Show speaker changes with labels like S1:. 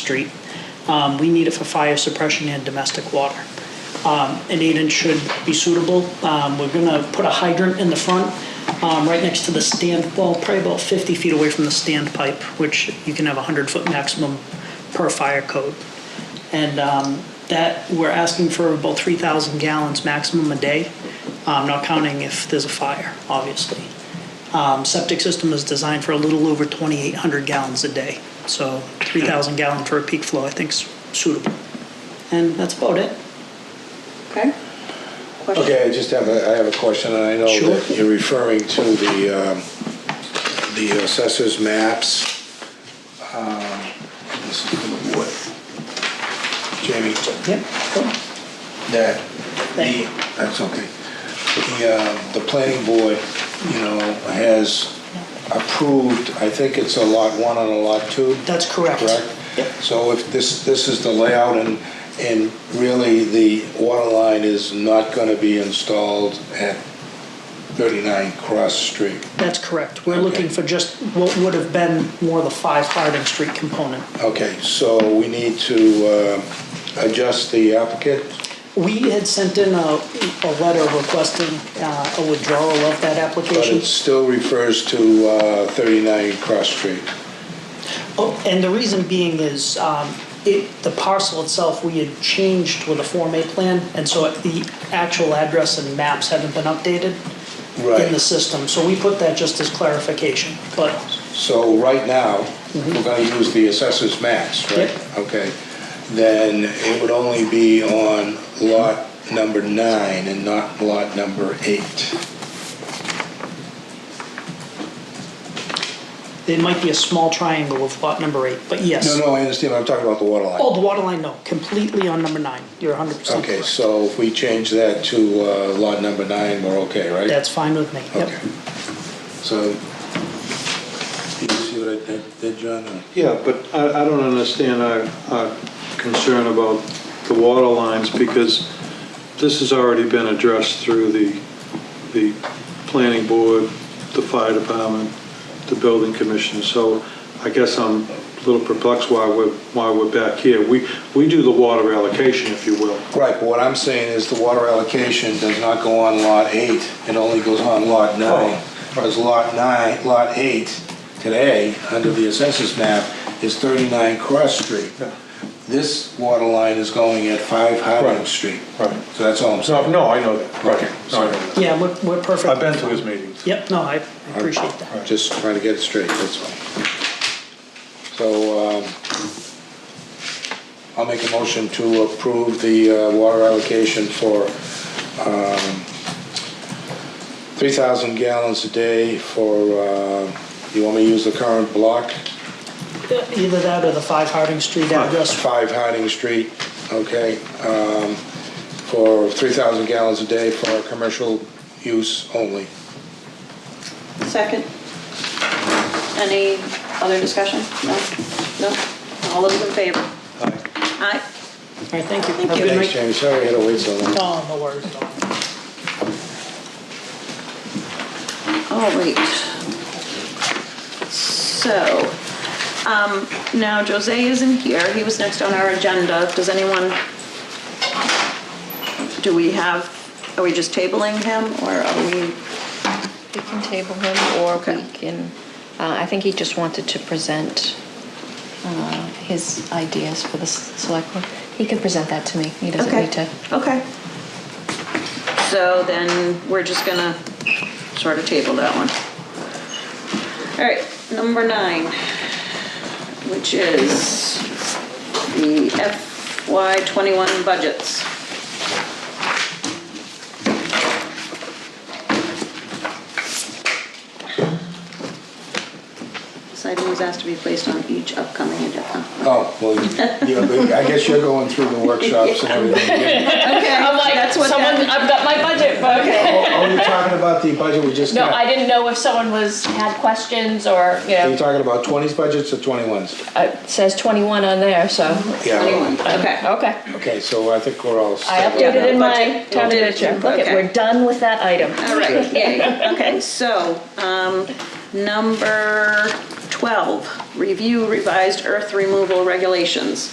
S1: Street. Um, We need it for fire suppression and domestic water. Um, An eight-inch should be suitable. Um, We're going to put a hydrant in the front, um, right next to the stand, well, probably about 50 feet away from the standpipe, which you can have a 100-foot maximum per fire code. And um, that, we're asking for about 3,000 gallons maximum a day, um, not counting if there's a fire, obviously. Um, Septic system is designed for a little over 2,800 gallons a day, so 3,000 gallon for a peak flow, I think's suitable. And that's about it.
S2: Okay? Question?
S3: Okay, I just have a, I have a question, and I know
S1: Sure.
S3: that you're referring to the, um, the assessor's maps. Um, This is from what? Jamie?
S1: Yep.
S3: That
S1: Thank
S3: the,
S1: you.
S3: that's okay. The, uh, the planning board, you know, has approved, I think it's a lot one and a lot two.
S1: That's correct. Yep.
S3: Correct? So if this, this is the layout and, and really the water line is not going to be installed at 39 Cross Street.
S1: That's correct. We're looking for just what would have been more the five Harding Street component.
S3: Okay, so we need to um, adjust the applicant?
S1: We had sent in a, a letter requesting uh, a withdrawal of that
S3: But
S1: application.
S3: it still refers to uh, 39 Cross Street.
S1: Oh, and the reason being is, um, it, the parcel itself, we had changed with a Form A plan, and so the actual address and maps haven't been updated in the
S3: Right.
S1: system, so we put that just as clarification, but,
S3: So right now, we're going to use the assessor's maps, right?
S1: Yep.
S3: Okay. Then it would only be on lot number nine and not lot number eight.
S1: it might be a small triangle of lot number eight, but yes.
S3: No, no, I understand, I'm talking about the water line.
S1: Oh, the water line, no, completely on number nine, you're hundred percent
S3: Okay,
S1: correct.
S3: so if we change that to uh, lot number nine, we're okay, right?
S1: That's fine with me,
S3: Okay.
S1: yep.
S3: So, do you see what I did- did, John? or-
S4: Yeah, but I, I don't understand our, our concern about the water lines because this has already been addressed through the, the planning board, the fire department, the building commission. So I guess I'm a little perplexed why we're, why we're back here. We, we do the water allocation, if you will.
S3: Right, but what I'm saying is the water allocation does not go on lot eight, it only goes on lot nine.
S5: Oh.
S3: Whereas lot nine, lot eight today, under the assessors map, is 39 Cross Street. This water line is going at 5 Harding
S5: Right.
S3: Street.
S5: Right.
S3: So that's all I'm saying.
S5: No, no, I know that. Right. No, I know that.
S1: Yeah, we're, we're perfect.
S5: I've been to his meetings.
S1: Yep, no, I appreciate that.
S3: Just trying to get it straight, that's all. So, um, I'll make a motion to approve the uh, water allocation for um, 3,000 gallons a day for, uh, you want me to use the current block?
S1: Either that or the five Harding Street address,
S3: 5 Harding Street, okay? um, For 3,000 gallons a day for commercial use only.
S2: Second? Any other discussion? No? No? All those in favor? Aye.
S1: all right, thank you.
S2: Thank
S1: Have a
S2: you.
S1: good
S3: Thanks,
S1: night.
S3: Jamie, sorry I had to wait so long.
S1: No, no worries, no worries.
S2: All right. So, um, now Jose isn't here. He was next on our agenda. Does anyone, do we have, are we just tabling him or are we,
S6: We can table him, or
S2: Okay.
S6: we can, uh, I think he just wanted to present uh, his ideas for the s- select board. He can present that to me, he doesn't
S2: Okay.
S6: need to.
S2: Okay. So then we're just gonna sort of table that one. All right, number nine, which is the FY twenty-one budgets. This item was asked to be placed on each upcoming agenda.
S3: Oh, well, you know, I guess you're going through the workshops and everything. again.
S2: Okay,
S7: I'm like,
S2: that's what
S7: someone,
S2: that,
S7: I've got my budget book.
S3: Oh, oh, you're talking about the budget we just
S7: No,
S3: got?
S7: I didn't know if someone was, had questions or, you
S3: Are you
S7: know,
S3: talking about 20s budgets or 21s?
S6: Uh, It says 21 on there, so.
S3: Yeah.
S2: anyone, okay.
S7: okay.
S3: Okay, so I think we're all
S7: I
S3: set.
S7: updated in my
S2: Budget.
S7: town Uh, manager. Look,
S2: Okay.
S7: it, we're done with that item.
S2: All right, yay, okay, so, um, number 12, review revised earth removal regulations.